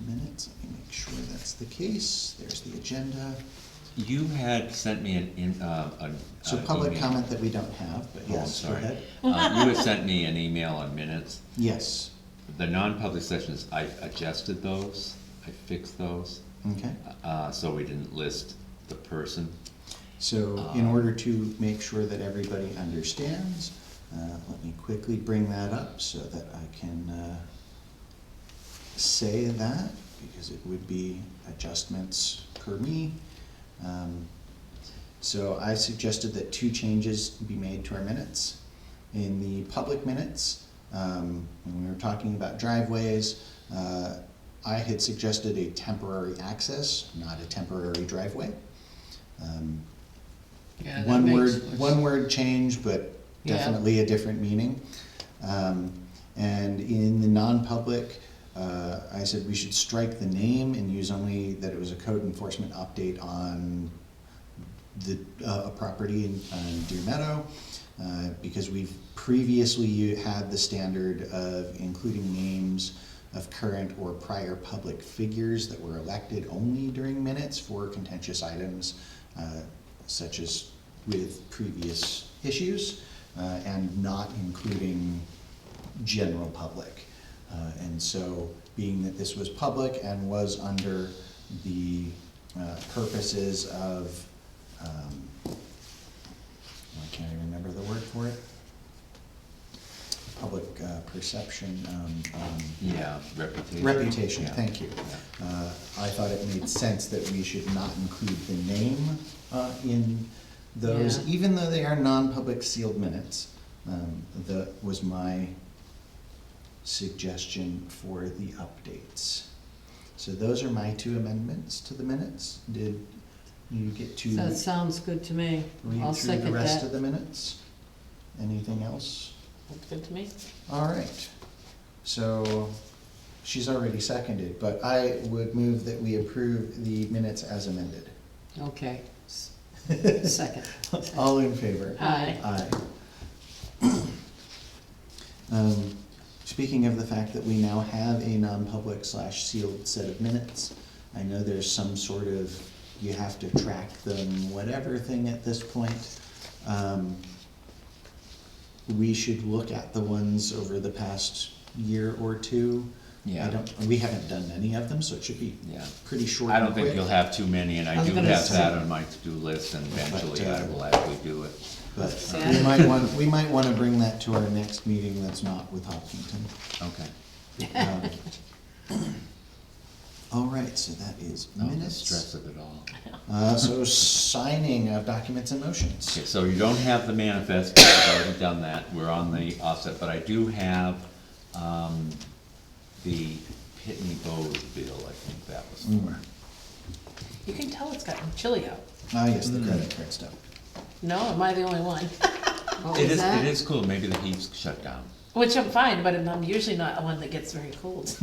minutes, let me make sure that's the case, there's the agenda. You had sent me an, in, uh, a. So an public email. comment that we don't have, but Oh, I'm yes, go sorry. ahead. Uh, you had sent me an email on minutes. Yes, The non-public sessions, I adjusted those, I fixed those, okay. uh, so we didn't list the person. So in Uh, order to make sure that everybody understands, uh, let me quickly bring that up so that I can uh, say that, because it would be adjustments per me. Um, So I suggested that two changes be made to our minutes. In the public minutes, um, when we were talking about driveways, uh, I had suggested a temporary access, not a temporary driveway. Um, Yeah, that one makes- word, one word change, but Yeah. definitely a different meaning. Um, and in the non-public, uh, I said we should strike the name and use only that it was a code enforcement update on the, uh, a property in, on Deer Meadow, uh, because we've previously u- had the standard of including names of current or prior public figures that were elected only during minutes for contentious items, uh, such as with previous issues, uh, and not including general public. Uh, And so, being that this was public and was under the uh, purposes of, um, I can't even remember the word for it. Public uh, perception, um, um, Yeah, reputation. reputation, Yeah. thank you. Uh, I thought it made sense that we should not include the name uh, in those, Yeah. even though they are non-public sealed minutes. Um, That was my suggestion for the updates. So those are my two amendments to the minutes. Did you get to That sounds good to me. I'll read through the second rest of that. the minutes? Anything else? That's good to me. All right. So she's already seconded, but I would move that we approve the minutes as amended. Okay. S- Second. All in favor? Aye. Aye. Um, Speaking of the fact that we now have a non-public slash sealed set of minutes, I know there's some sort of, you have to track them, whatever thing at this point. Um, We should look at the ones over the past year or two. Yeah. I don't, we haven't done any of them, so it should be Yeah. pretty short I and don't think quick. you'll have too many, and I I was do gonna have say- that on my to-do list, and eventually uh, I will actually do it. But uh, Yeah. we might want, we might wanna bring that to our next meeting that's not with Hopkinton. Okay. Um, All right, so that is No, the stress minutes. of it all. Uh, so signing of documents and Okay, motions. so you don't have the manifest, because I've already done that, we're on the offset, but I do have, um, the Pitney Bowes bill, I think that was for. You can tell it's gotten chilly out. Ah, yes, Hmm. the credit card stuff. No, am I the only one? What It was is, Oh, that? it is cool, maybe the heat's shut down. Which I'm fine, but I'm- I'm usually not one that gets very cold.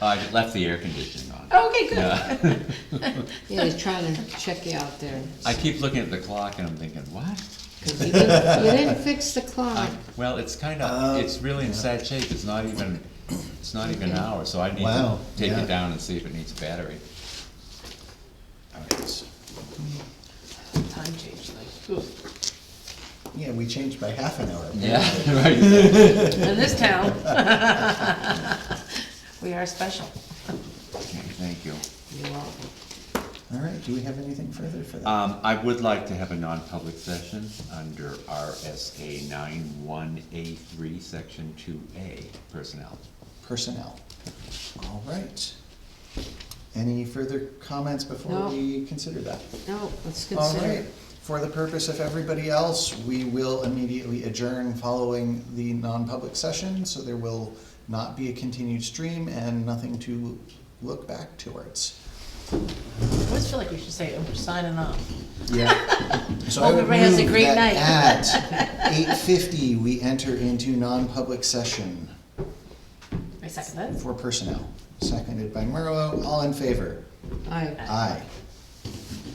I left the air conditioning on. Okay, good. Yeah. Yeah, he's trying to check you out there. I keep looking at the clock and I'm thinking, what? 'Cause you didn't, you didn't fix the clock. I- Well, it's kinda, Uh, it's really in sad shape, it's not even, it's not even an hour, so I need to Wow, take yeah. it down and see if it needs a battery. All right, so- Time change, like, oof. Yeah, we changed by half an hour. Yeah, right. in this town. We are special. Thank you. You're welcome. All right, do we have anything further for that? Um, I would like to have a non-public session under RSA nine one A three, section two A, personnel. Personnel. All right. Any further comments before No. we consider that? No, let's All consider. right, it. for the purpose of everybody else, we will immediately adjourn following the non-public session, so there will not be a continued stream and nothing to look back towards. I always feel like we should say, "Oh, we're signing off. Yeah. So I Hope would everybody has a move great that night. At eight fifty, we enter into non-public session I second that. for personnel, seconded by Merlo, all in favor? All right. Aye.